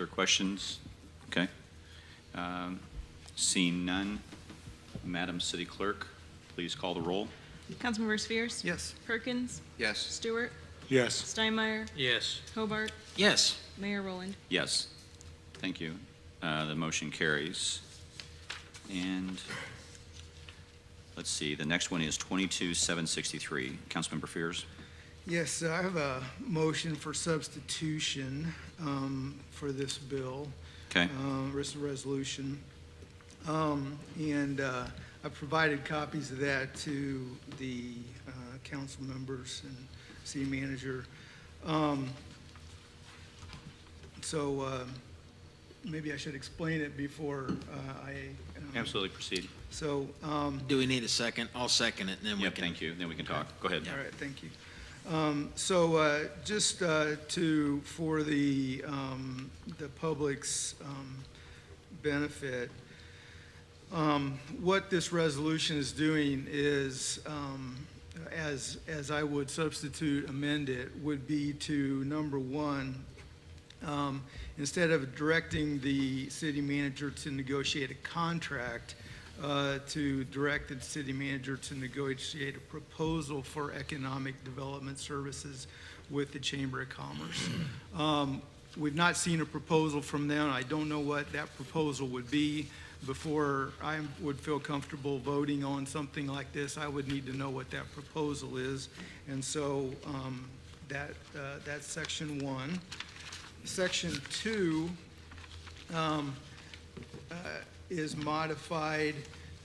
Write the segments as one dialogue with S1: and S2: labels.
S1: or questions? Okay. Um, Seeing none, Madam City Clerk, please call the roll.
S2: Councilmember Spheres?
S3: Yes.
S2: Perkins?
S3: Yes.
S2: Stewart?
S4: Yes.
S2: Steinmeier?
S5: Yes.
S2: Hobart?
S5: Yes.
S2: Mayor Rowland?
S1: Yes. Thank you. Uh, The motion carries. And let's see, the next one is 22763. Councilmember Fears?
S3: Yes, I have a motion for substitution um, for this bill,
S1: Okay,
S3: um, this resolution. Um, And uh, I provided copies of that to the uh, council members and city manager. Um, So uh, maybe I should explain it before uh, I. um,
S1: absolutely, proceed.
S3: So um,
S5: Do we need a second? I'll second it, and then we
S1: Yep,
S5: can.
S1: thank you, then we can talk. Go ahead.
S3: All right, thank you. Um, So uh, just uh, to, for the, um, the public's um, benefit, um, what this resolution is doing is, um, as, as I would substitute amend it, would be to, number one, um, instead of directing the city manager to negotiate a contract, uh, to direct the city manager to negotiate a proposal for economic development services with the Chamber of Commerce. Um, We've not seen a proposal from them. I don't know what that proposal would be. Before I would feel comfortable voting on something like this, I would need to know what that proposal is. And so um, that, uh, that's section one. Section two um, uh, is modified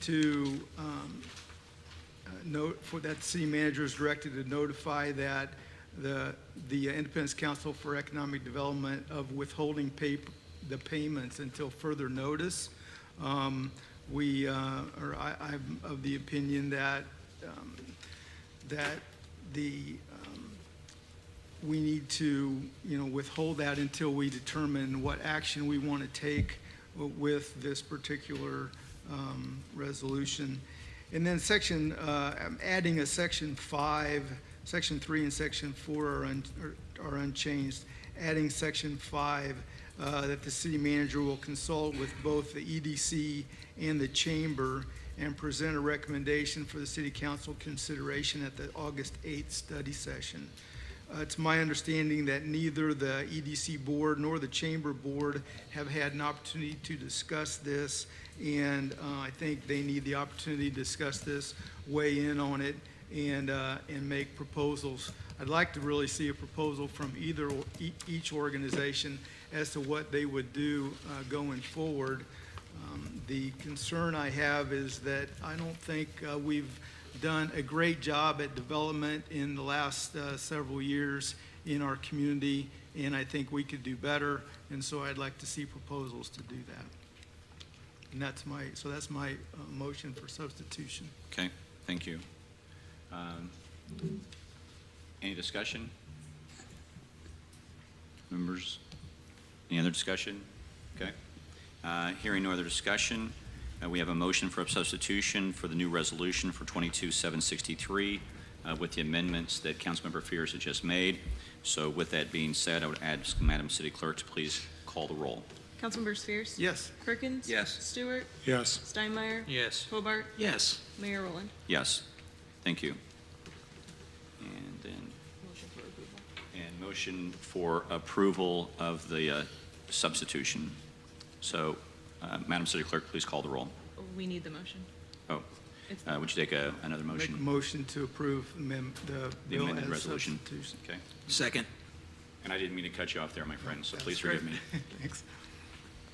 S3: to um, uh, note, for that city manager is directed to notify that the, the Independence Council for Economic Development of withholding pay, the payments until further notice. Um, We, uh, or I, I'm of the opinion that, um, that the, um, we need to, you know, withhold that until we determine what action we want to take with this particular um, resolution. And then section, uh, I'm adding a section five, section three and section four are un- are- are unchanged. Adding section five, uh, that the city manager will consult with both the EDC and the chamber and present a recommendation for the city council consideration at the August 8th study session. Uh, It's my understanding that neither the EDC Board nor the Chamber Board have had an opportunity to discuss this, and uh, I think they need the opportunity to discuss this, weigh in on it, and, uh, and make proposals. I'd like to really see a proposal from either, or- e- each organization as to what they would do uh, going forward. Um, The concern I have is that I don't think uh, we've done a great job at development in the last uh, several years in our community, and I think we could do better, and so I'd like to see proposals to do that. And that's my, so that's my uh, motion for substitution.
S1: Okay, thank you. Um, Any discussion? Members, any other discussion? Okay. Uh, Hearing no other discussion, uh, we have a motion for substitution for the new resolution for 22763 uh, with the amendments that Councilmember Fears had just made. So with that being said, I would ask Madam City Clerk to please call the roll.
S2: Councilmember Spheres?
S3: Yes?
S2: Perkins?
S5: Yes.
S2: Stewart?
S4: Yes.
S2: Steinmeier?
S5: Yes.
S2: Hobart?
S5: Yes.
S2: Mayor Rowland?
S1: Yes, thank you. And then And motion for approval of the uh, substitution. So, uh, Madam City Clerk, please call the roll.
S2: We need the motion.
S1: Oh,
S2: It's
S1: uh, would you take a- another
S3: Make a
S1: motion?
S3: motion to approve amend- the
S1: The
S3: bill
S1: amended
S3: as
S1: resolution?
S3: substitution.
S1: Okay.
S5: Second.
S1: And I didn't mean to cut you off there, my friend, so
S3: That's
S1: please forgive
S3: great.
S1: me.
S3: Thanks.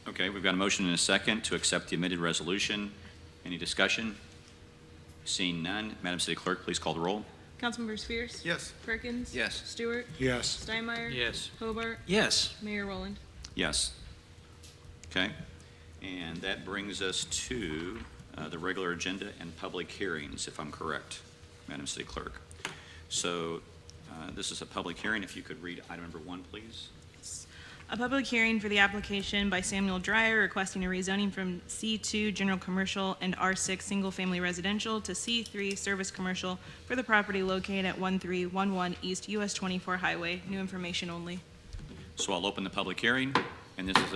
S1: Okay, we've got a motion and a second to accept the amended resolution. Any discussion? Seeing none, Madam City Clerk, please call the roll.
S2: Councilmember Spheres?
S3: Yes?
S2: Perkins?
S5: Yes.
S2: Stewart?
S4: Yes.
S2: Steinmeier?
S5: Yes.
S2: Hobart?
S5: Yes.
S2: Mayor Rowland?
S1: Yes. Okay. And that brings us to uh, the regular agenda and public hearings, if I'm correct, Madam City Clerk. So uh, this is a public hearing. If you could read item number one, please.
S6: A public hearing for the application by Samuel Dreyer requesting a rezoning from C2 General Commercial and R6 Single Family Residential to C3 Service Commercial for the property located at 1311 East US 24 Highway. New information only.
S1: So I'll open the public hearing. And this is a